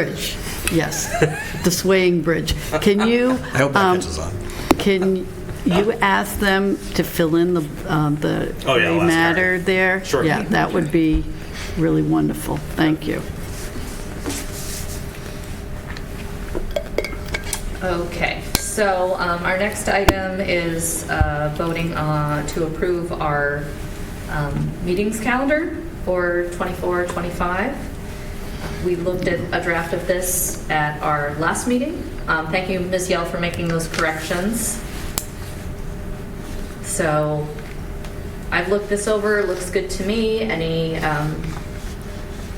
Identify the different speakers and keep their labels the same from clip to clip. Speaker 1: Bridge, yes, the swaying bridge. Can you?
Speaker 2: I hope that
Speaker 1: um,
Speaker 2: catches on.
Speaker 1: Can you ask them to fill in the, um, the
Speaker 2: Oh, yeah, I'll
Speaker 1: gray
Speaker 2: ask Karen.
Speaker 1: matter there?
Speaker 2: Sure.
Speaker 1: Yeah, that would be really wonderful. Thank you.
Speaker 3: Okay, so um, our next item is uh, voting uh, to approve our um, meetings calendar for 24, 25. We looked at a draft of this at our last meeting. Um, Thank you, Ms. Yell, for making those corrections. So I've looked this over, it looks good to me. Any, um,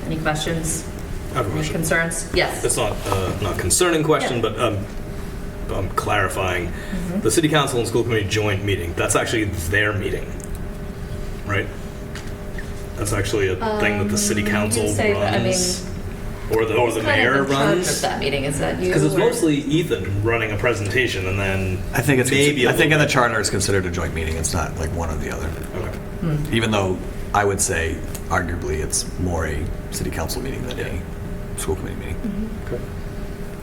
Speaker 3: any questions?
Speaker 2: I have a
Speaker 3: Any
Speaker 2: question.
Speaker 3: concerns? Yes.
Speaker 2: It's not uh, not concerning question, but um, I'm clarifying.
Speaker 3: Mm-hmm.
Speaker 2: The city council and school committee joint meeting. That's actually their meeting, right? That's actually a thing that the city council
Speaker 3: Um, you say that, I
Speaker 2: runs, or the or Oh, the
Speaker 3: kind
Speaker 2: mayor
Speaker 3: of in charge
Speaker 2: runs.
Speaker 3: of that meeting? Is that you?
Speaker 2: Because it's
Speaker 3: or-
Speaker 2: mostly Ethan running a presentation, and then
Speaker 4: I think it's,
Speaker 2: maybe a
Speaker 4: I think in
Speaker 2: little
Speaker 4: the charter it's considered a joint meeting, it's not like one or the other.
Speaker 2: bit- okay.
Speaker 4: Even though I would say arguably it's more a city council meeting than a school committee
Speaker 2: Mm-hmm.
Speaker 4: meeting.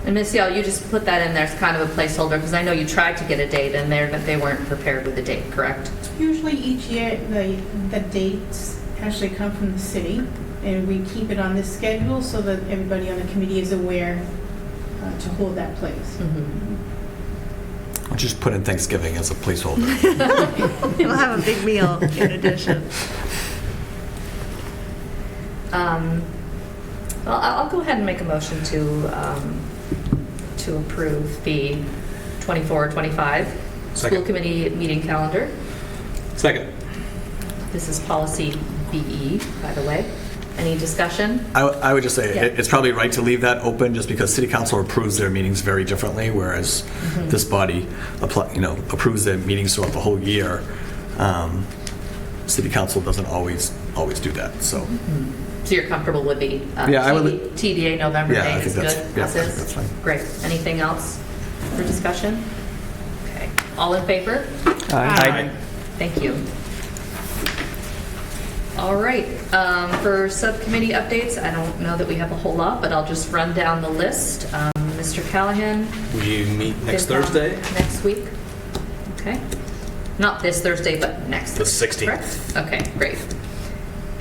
Speaker 3: And Miss Yale, you just put that in there as kind of a placeholder because I know you tried to get a date in there, but they weren't prepared with a date, correct?
Speaker 5: Usually each year, the, the dates actually come from the city, and we keep it on this schedule so that everybody on the committee is aware uh, to hold that place.
Speaker 4: I'll Just put in Thanksgiving as a placeholder.
Speaker 6: We'll have a big meal in addition.
Speaker 3: Um, Well, I- I'll go ahead and make a motion to, um, to approve the 24, 25 school
Speaker 2: Second.
Speaker 3: committee meeting calendar.
Speaker 2: Second,
Speaker 3: This is policy BE, by the way. Any discussion?
Speaker 4: I, I would just say it-
Speaker 3: Yeah.
Speaker 4: it's probably right to leave that open just because city council approves their meetings very differently, whereas
Speaker 2: Mm-hmm.
Speaker 4: this body apply, you know, approves their meetings throughout the whole year. Um, City council doesn't always, always do that, so,
Speaker 2: Mm-hmm.
Speaker 3: So you're comfortable with the uh,
Speaker 4: Yeah, I would-
Speaker 3: TD TDA November
Speaker 4: Yeah, I
Speaker 3: date
Speaker 4: think
Speaker 3: is good?
Speaker 4: that's- yeah, I
Speaker 3: This
Speaker 4: think
Speaker 3: is?
Speaker 4: that's fine.
Speaker 3: Great. Anything else for discussion? Okay. All in favor?
Speaker 5: Aye.
Speaker 3: Thank you. All right, um, for subcommittee updates, I don't know that we have a whole lot, but I'll just run down the list. Um, Mr. Callahan?
Speaker 2: we meet next
Speaker 3: FinCom,
Speaker 2: Thursday.
Speaker 3: um, Next week? Okay. Not this Thursday, but next.
Speaker 2: The 16th.
Speaker 3: Thursday, correct? Okay, great.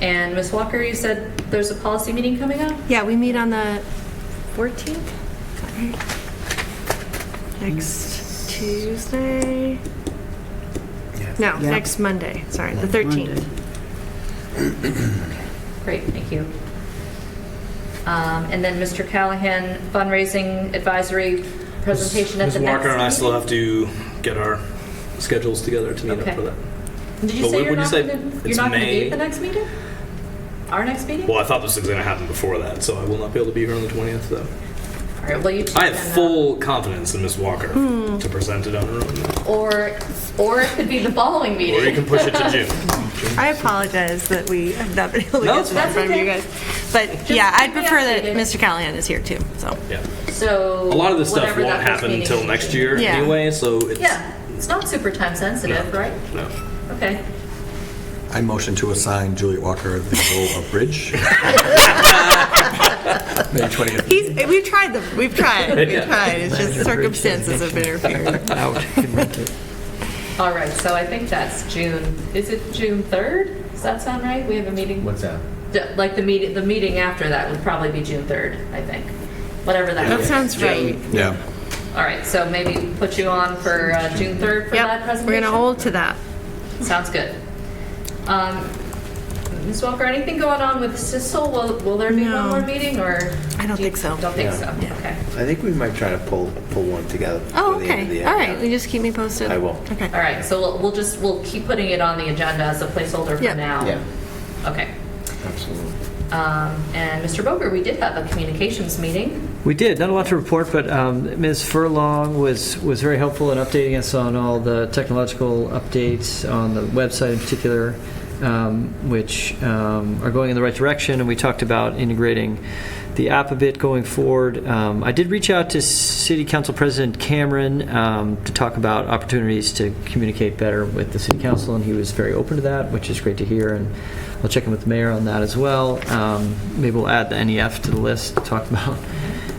Speaker 3: And Ms. Walker, you said there's a policy meeting coming up?
Speaker 6: Yeah, we meet on the 14th? Next Tuesday? No, next Monday, sorry, the 13th.
Speaker 3: Great, thank you. Um, And then Mr. Callahan, fundraising advisory presentation at
Speaker 2: Ms.
Speaker 3: the next.
Speaker 2: Walker and I still
Speaker 3: meeting?
Speaker 2: have to get our schedules together to meet
Speaker 3: Okay.
Speaker 2: up for that.
Speaker 3: Did you
Speaker 2: But
Speaker 3: say
Speaker 2: when-
Speaker 3: you're
Speaker 2: when you
Speaker 3: not
Speaker 2: say
Speaker 3: gonna, you're
Speaker 2: it's
Speaker 3: not gonna
Speaker 2: May-
Speaker 3: be at the next meeting? Our next meeting?
Speaker 2: Well, I thought this was going to happen before that, so I will not be able to be here on the 20th, though.
Speaker 3: All right, well, you two
Speaker 2: I have
Speaker 3: can, uh,
Speaker 2: full confidence in Ms. Walker
Speaker 3: Hmm.
Speaker 2: to present it on her own.
Speaker 3: Or, or it could be the following
Speaker 2: Or you
Speaker 3: meeting.
Speaker 2: can push it to June.
Speaker 6: I apologize that we have not been able to
Speaker 2: No,
Speaker 6: get
Speaker 2: it's
Speaker 6: to that
Speaker 3: fine.
Speaker 6: from you guys. But yeah,
Speaker 3: keep
Speaker 6: I'd
Speaker 3: me
Speaker 6: prefer that
Speaker 3: updated.
Speaker 6: Mr. Callahan is here too, so.
Speaker 2: Yeah.
Speaker 3: So.
Speaker 2: A lot of this stuff
Speaker 3: whatever that
Speaker 2: won't
Speaker 3: first
Speaker 2: happen
Speaker 3: meeting
Speaker 2: until
Speaker 3: is.
Speaker 2: next year
Speaker 6: Yeah.
Speaker 2: anyway, so it's.
Speaker 3: Yeah, it's not super time sensitive, right?
Speaker 2: No.
Speaker 3: Okay.
Speaker 4: I motion to assign Juliet Walker the role of bridge. May 20th.
Speaker 6: He's, we've tried them, we've tried,
Speaker 2: Yeah.
Speaker 6: we've tried, it's just circumstances have interfered.
Speaker 3: All right, so I think that's June, is it June 3rd? Does that sound right? We have a meeting?
Speaker 7: What's that?
Speaker 3: D- Like the meeting, the meeting after that would probably be June 3rd, I think. Whatever that
Speaker 6: That
Speaker 3: is.
Speaker 6: sounds right.
Speaker 4: Yeah.
Speaker 3: All right, so maybe put you on for uh, June 3rd for that
Speaker 6: Yep,
Speaker 3: presentation?
Speaker 6: we're gonna hold to that.
Speaker 3: Sounds good. Um, Ms. Walker, anything going on with CISL? Will, will there be one
Speaker 6: No.
Speaker 3: more meeting or?
Speaker 6: I don't
Speaker 3: do you-
Speaker 6: think so.
Speaker 3: Don't think
Speaker 7: Yeah.
Speaker 3: so,
Speaker 6: Yeah.
Speaker 3: okay.
Speaker 7: I think we might try to pull, pull one together.
Speaker 6: Oh,
Speaker 7: for the end of the
Speaker 6: okay,
Speaker 7: year.
Speaker 6: all right, you just keep me posted.
Speaker 7: I will.
Speaker 6: Okay.
Speaker 3: All right, so we'll, we'll just, we'll keep putting it on the agenda as a placeholder
Speaker 6: Yeah.
Speaker 3: for now.
Speaker 7: Yeah,
Speaker 3: Okay.
Speaker 7: absolutely.
Speaker 3: Um, and Mr. Boger, we did have a communications meeting.
Speaker 8: We did, not a lot to report, but um, Ms. Furlong was, was very helpful in updating us on all the technological updates on the website in particular, um, which um, are going in the right direction, and we talked about integrating the app a bit going forward. Um, I did reach out to City Council President Cameron um, to talk about opportunities to communicate better with the City Council, and he was very open to that, which is great to hear, and E I'll check in with the mayor on that as well. Um, Maybe we'll add the NEF to the list, talk about